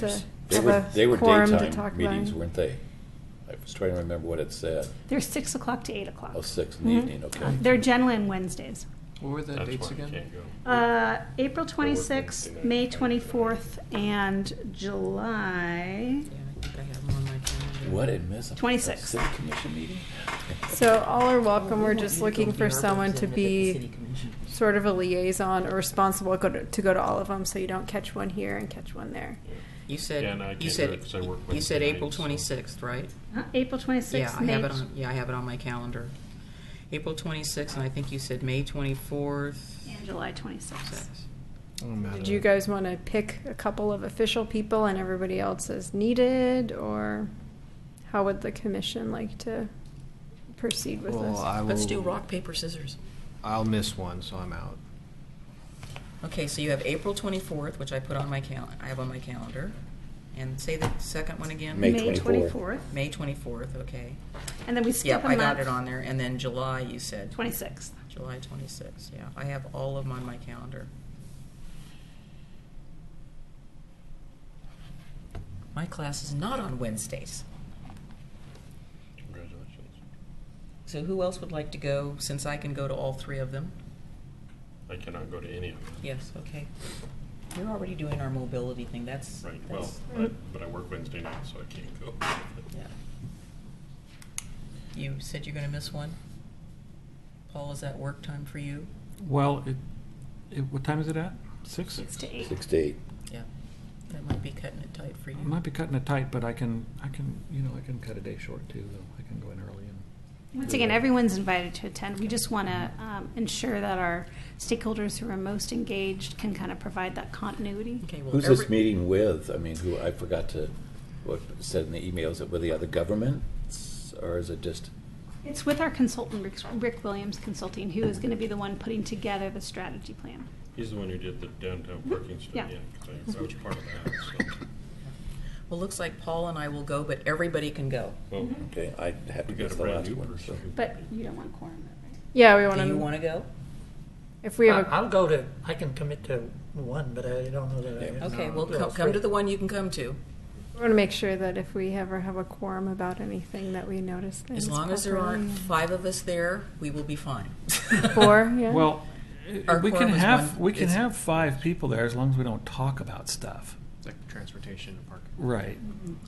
to They have were, a they were quorum to talk daytime about meetings, it. weren't they? I was trying to remember what it said. They're six o'clock to eight o'clock. Mm-hmm. Oh, six in the Mhm. evening, okay. They're generally on Wednesdays. What were the That's dates why you again? can't go. Uh, April Wednesday 26th, night. May 24th, and July. Yeah, I think I have them on my calendar. What did miss? A 26. City commission meeting? So all are welcome. Oh, We're we just want you looking go for be our someone to representative at the city be commission. sort of a liaison or responsible go to, to go to all of them, so you don't catch one here and catch one there. You Yeah, no, I said, you can't do it said, 'cause I work you said Wednesday April night, so- twenty-sixth, right? Huh? April 26th, Yeah, I May. have it on, yeah, I have it on my calendar. April twenty-sixth, and I think you said May twenty-fourth. And July 26th. Did you guys want to pick a couple of official people and everybody else as needed, or how would the commission like to proceed with Well, this? I will. Let's do rock, paper, scissors. I'll miss one, so I'm out. Okay, so you have April twenty-fourth, which I put on my cal, I have on my calendar. And say the second one again? May 24th. May twenty-fourth, okay. And then we skip Yep, a I month. got it on there. And then July, you said? 26th. July twenty-sixth, yeah. I have all of them on my calendar. My class is not on Wednesdays. Congratulations. So who else would like to go, since I can go to all three of them? I cannot go to any of them. Yes, okay. You're already doing our mobility thing, that's. Right, well, I- but I work Wednesday night, so I can't go. Yeah. You said you're gonna miss one? Paul, is that work time for you? Well, it, it, what time is it at? Six? Six to eight. Six to eight. Yeah. That might be cutting it tight for you. I might be cutting it tight, but I can, I can, you know, I can cut a day short too, though. I can go in early and. Once again, everyone's invited to attend. We just want to um, ensure that our stakeholders who are most engaged can kind of provide that continuity. Okay, well, Who's this every- meeting with? I mean, who, I forgot to, what it said in the email, is it with the other governments? Or is it just, It's with our consultant, Rick, Rick Williams Consulting, who is going to be the one putting together the strategy plan. He's the one who did the Mm-hmm. downtown parking study, Yeah. yeah, 'cause I- I was part of that, so. Well, looks like Paul and I will go, but everybody can go. Mm-hmm. Well, okay, I have to we got guess a the brand last new one. so. person. who- But you don't want quorum, right? yeah, we want Do to. you want to go? if we have a I- I'll go to, I can commit to one, but I don't know that I. Yeah. Okay, well, Yeah, co- come to the one you can come to. We want to make sure that if we ever have a quorum about anything, that we notice things. As long as there properly. aren't five of us there, we will be fine. Four, yeah. Well, Our we can quorum is have, one- we can is- have five people there as long as we don't talk about stuff. It's like transportation and parking. Right.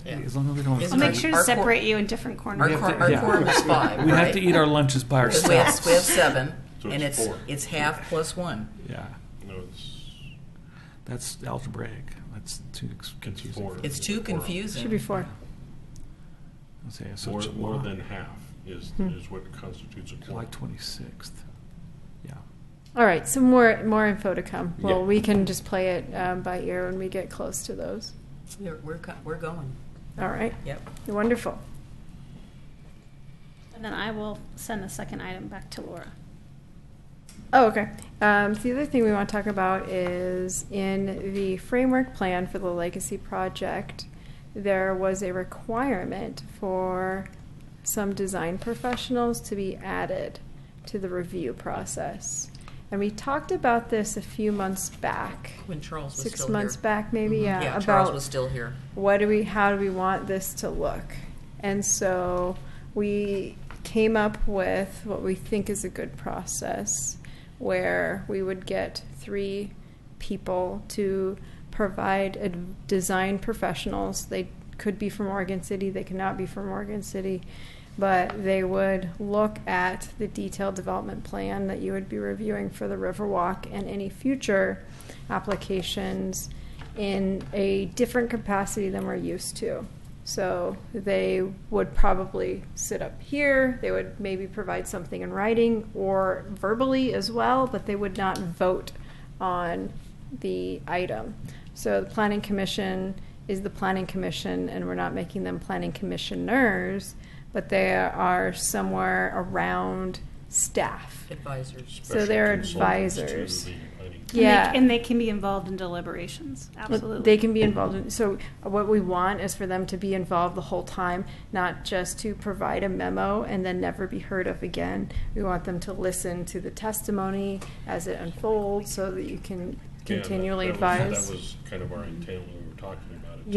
Yeah. As long as we don't. Is I'll it make sure to Our quor- separate you in different Our corners. have quor- to- our yeah. quorum is five, We have right? to eat our lunches by Because we have, ourselves. we have seven, So and it's it's, four. it's half plus one. Yeah, No, it's, that's algebraic. That's too ex- it's confusing. four. It's too confusing. Should be four. Okay, so More, more July- than half is, Hmm. is what constitutes a July quorum. twenty-sixth. Yeah. All right, so more more info to come. Well, Yeah. we can just play it um, by ear when we get close to those. We're, we're, co- we're going, All right, yep. wonderful. And then I will send the second item back to Laura. Oh, okay. Um, so the other thing we want to talk about is in the framework plan for the legacy project, there was a requirement for some design professionals to be added to the review process. And we talked about this a few months back, When Charles was still here. six months back, maybe. Mhm. Yeah, Yeah, about Charles was still here. what do we how do we want this to look and so we came up with what we think is a good process where we would get three people to provide ad- design professionals they could be from oregon city they could not be from oregon city but they would look at the detailed development plan that you would be reviewing for the riverwalk and any future applications in a different capacity than we're used to. So they would probably sit up here, they would maybe provide something in writing or verbally as well, but they would not vote on the item. So the Planning Commission is the Planning Commission, and we're not making them Planning Commissioners, but they are somewhere around staff. Advisors. Special they're consultants to advisors. the planning And they- Yeah. And they can be involved in deliberations, But absolutely. They can be involved. In, so what we want is for them to be involved the whole time, not just to provide a memo and then never be heard of again. We want them to listen to the testimony as it unfolds, so that you can Yeah, that- continually that was- advise. That was kind of our intent when we were talking